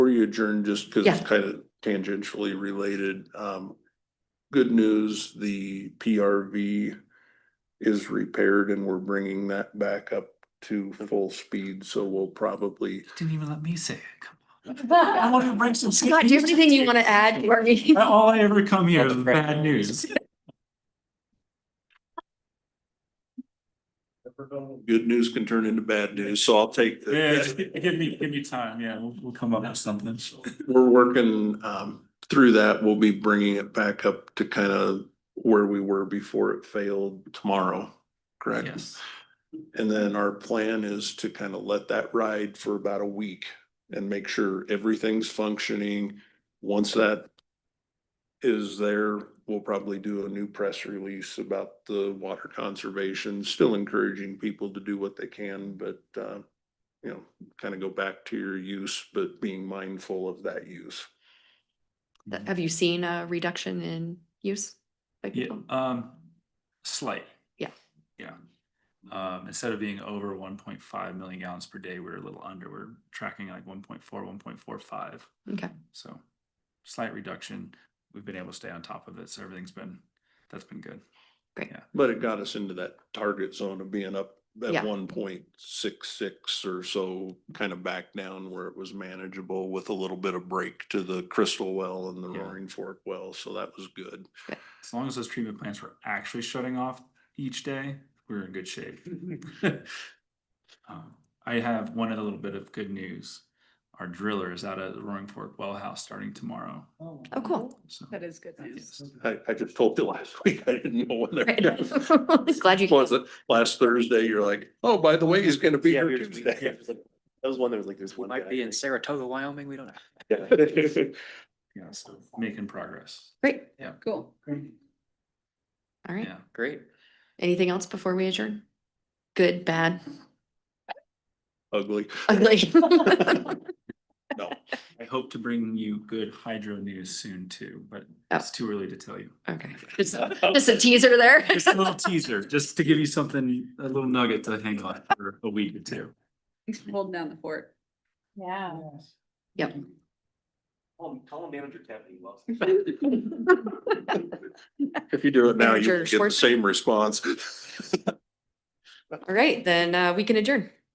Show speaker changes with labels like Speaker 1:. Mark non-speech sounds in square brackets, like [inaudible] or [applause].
Speaker 1: we adjourn just because it's
Speaker 2: Yeah.
Speaker 1: kind of tangentially related. Um, good news, the PRV is repaired and we're bringing that back up to full speed, so we'll probably.
Speaker 3: Didn't even let me say it. Come on. I
Speaker 2: Scott,
Speaker 3: want
Speaker 2: [laughs]
Speaker 3: to bring some.
Speaker 2: Oh do you have anything you want to add to our
Speaker 4: [laughs]
Speaker 2: meeting?
Speaker 3: All I ever come here is
Speaker 2: That's great.
Speaker 3: bad news.
Speaker 1: Good news can turn into bad news, so I'll take the.
Speaker 3: Yeah, just gi- give me, give me time, yeah, we'll, we'll come up with something.
Speaker 1: We're working um through that. We'll be bringing it back up to kind of where we were before it failed tomorrow, correct?
Speaker 3: Yes,
Speaker 1: And then our plan is to kind of let that ride for about a week and make sure everything's functioning. Once that is there, we'll probably do a new press release about the water conservation, still encouraging people to do what they can, but uh, you know, kind of go back to your use, but being mindful of that use.
Speaker 2: [laughs] Have you seen a reduction in use? oh. by
Speaker 3: yeah,
Speaker 2: people?
Speaker 3: um, slight.
Speaker 2: Yeah.
Speaker 3: Yeah. Um, instead of being over one point five million gallons per day, we're a little under, we're tracking like 1.4, 1.45.
Speaker 2: Okay,
Speaker 3: so. Slight reduction, we've been able to stay on top of it, so everything's been, that's been good.
Speaker 1: But it got us into that target zone of being up
Speaker 2: Yeah.
Speaker 1: at one point six six or so, kind of back down where it was manageable with a little bit of break to the Crystal Well and the
Speaker 3: Yeah.
Speaker 1: Roaring Fork Well, so that was good.
Speaker 3: As long as those treatment plants were actually shutting off each day, we're in good shape. Um, I have one other little bit of good news. Our driller is out at the Roaring Fork Well House starting tomorrow.
Speaker 2: oh, cool.
Speaker 3: So
Speaker 4: That is good news.
Speaker 3: yes.
Speaker 1: I, I just told you [laughs] last week, I didn't know when
Speaker 2: Right.
Speaker 1: they
Speaker 2: [laughs] Glad you.
Speaker 1: Was it last Thursday, you're like, oh, by the way, he's gonna be
Speaker 5: Yeah,
Speaker 1: here
Speaker 5: we were just- yeah,
Speaker 1: Tuesday.
Speaker 5: it was like- That was one that was like, there's one.
Speaker 6: Might be in Saratoga, Wyoming, we don't know.
Speaker 3: Yeah, so making progress.
Speaker 2: Great,
Speaker 4: Cool.
Speaker 2: all right.
Speaker 3: Yeah.
Speaker 6: Great.
Speaker 2: Anything else before we adjourn? Good, bad,
Speaker 1: [laughs]
Speaker 2: [laughs]
Speaker 1: Ugly.
Speaker 4: [laughs]
Speaker 2: ugly?
Speaker 1: No,
Speaker 3: I hope to bring you good hydro news soon too, but
Speaker 2: Oh.
Speaker 3: it's too early to tell you.
Speaker 2: Okay, [laughs] just, just a teaser there. [laughs]
Speaker 3: Just a little teaser, just to give you something, a little nugget to hang on for a week or two.
Speaker 4: Thanks for holding down the fort. Yeah.
Speaker 2: Yep.
Speaker 5: Call manager Kevin, he loves.
Speaker 1: if you do it now,
Speaker 2: Manager
Speaker 1: you get the
Speaker 2: Schwartz-
Speaker 1: same response. [laughs]
Speaker 2: All right, then uh, we can adjourn.